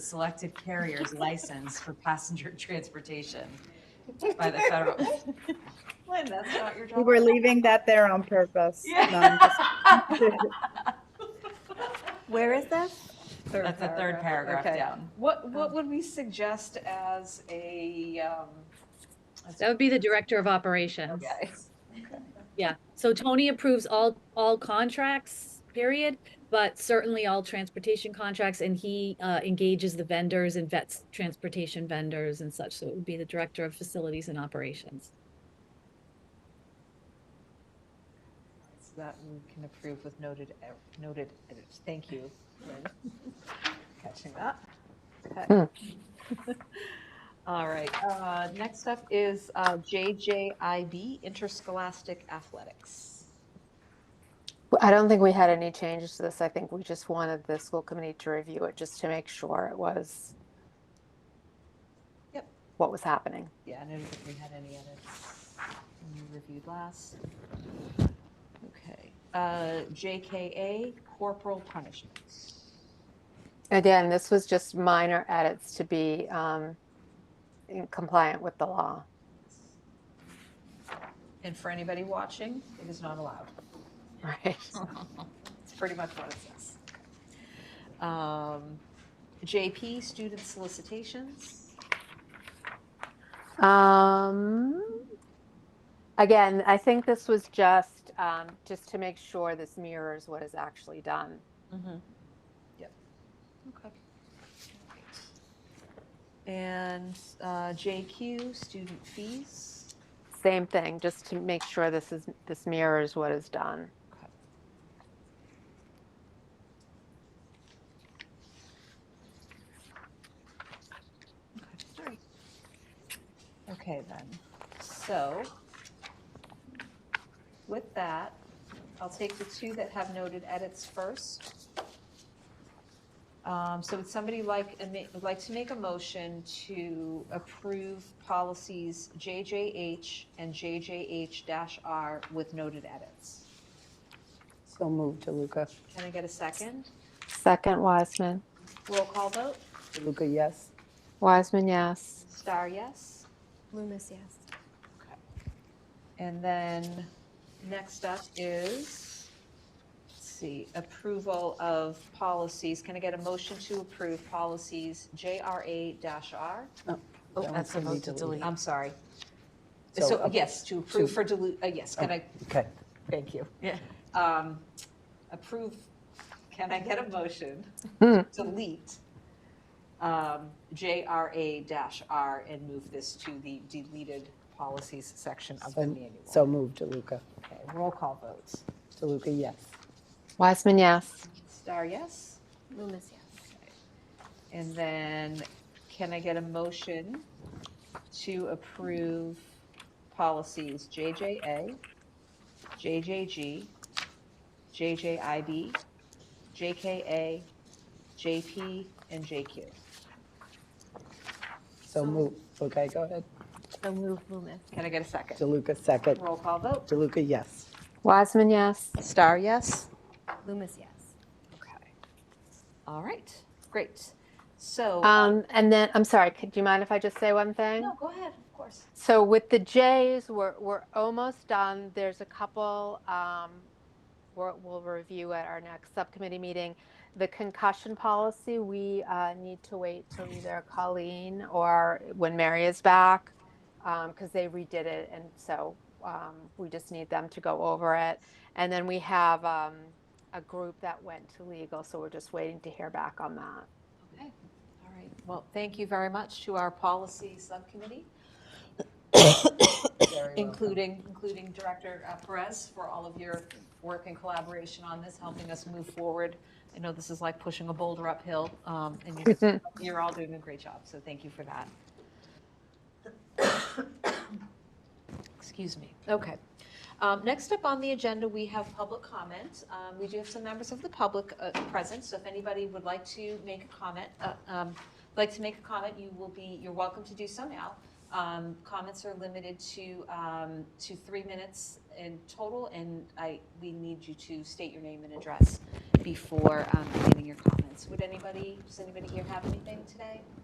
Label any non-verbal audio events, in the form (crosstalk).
selected carrier's license for passenger (laughs) transportation by (laughs) the federal. Lynn, that's not your We job. were leaving that there on purpose. No, I'm just- Yeah. Where is this? That's the third paragraph Okay. down. What, what would we suggest as a, um, That would be the director of operations. okay. Yeah, so Tony approves all, all contracts, period, but certainly all transportation contracts, and he uh, engages the vendors and vets transportation vendors and such, so it would be the director of facilities and operations. So That we can approve with noted, ed- noted edits. Thank you. Lynn. Catching that. Okay. All right, uh, next up is uh, JJIB, Interscholastic Athletics. I don't think we had any changes to this. I think we just wanted the school committee to review it just to make sure it was Yep. what was happening. Yeah, I don't think we had any edits when we reviewed last. Okay, uh, JKA, corporal punishments. Again, this was just minor edits to be um, in compliant with the law. (laughs) And for anybody watching, it is not allowed. Right. It's pretty much what it says. Um, JP, student solicitations. Um, again, I think this was just um, just to make sure this mirrors what is actually done. Yep. Okay. And uh, JQ, student fees. Same thing, just to make sure this is this mirrors what is done. Okay. Okay, then. So with that, I'll take the two that have noted edits first. Um, So would somebody like, a ma- would like to make a motion to approve policies JJH and JJH-R with noted edits? So moved, DeLuca. Can I get a second? Second, Wiseman. Roll call vote? DeLuca, yes. Wiseman, yes. Star, yes? Loomis, yes. And then next up is, let's see, approval of policies. Can I get a motion to approve policies JRA-R? Oh, that's supposed to delete. I'm sorry. So, So, uh, yes, to approve for dilute, uh, yes, can I, Okay, thank you. Yeah. um, approve, can I get a (laughs) motion? Hmm. Delete, um, JRA-R and move this to the deleted policies section of the So- manual. So moved, DeLuca. Okay, roll call votes. DeLuca, yes. Wiseman, yes. Star, yes? Loomis, yes. And then can I get a motion to approve policies JJA, JJG, JJIB, JKA, JP, and JQ? So moved. Okay, go ahead. So move Loomis. Can I get a second? DeLuca, second. Roll call vote. DeLuca, yes. Wiseman, yes. Star, yes? Loomis, yes. Okay. All right, great. So, Um, and then, I'm sorry, could, do you mind if I just say one thing? no, go ahead, of course. So with the J's, we're, we're almost done. There's a couple, um, we're, we'll review at our next subcommittee meeting. The concussion policy, we, uh, need to wait till either Colleen or when Mary is back, um, cause they redid it. And so, um, we just need them to go over it. And then we have, um, a group that went to legal, so we're just waiting to hear back on that. Okay, all right. Well, thank you very much to our policy subcommittee, including, including Director uh, Perez for all of your work and collaboration on this, helping us move forward. I know this is like pushing a boulder uphill, um, and you're, you're all doing a great job, so thank you for that. (coughs) Excuse me. Okay. Um, Next up on the agenda, we have public comment. Um, We do have some members of the public uh, present, so if anybody would like to make a comment, uh, um, like to make a comment, you will be, you're welcome to do so now. Um, Comments are limited to, um, to three minutes in total, and I, we need you to state your name and address before um, beginning your comments. Would anybody, does anybody here have anything today?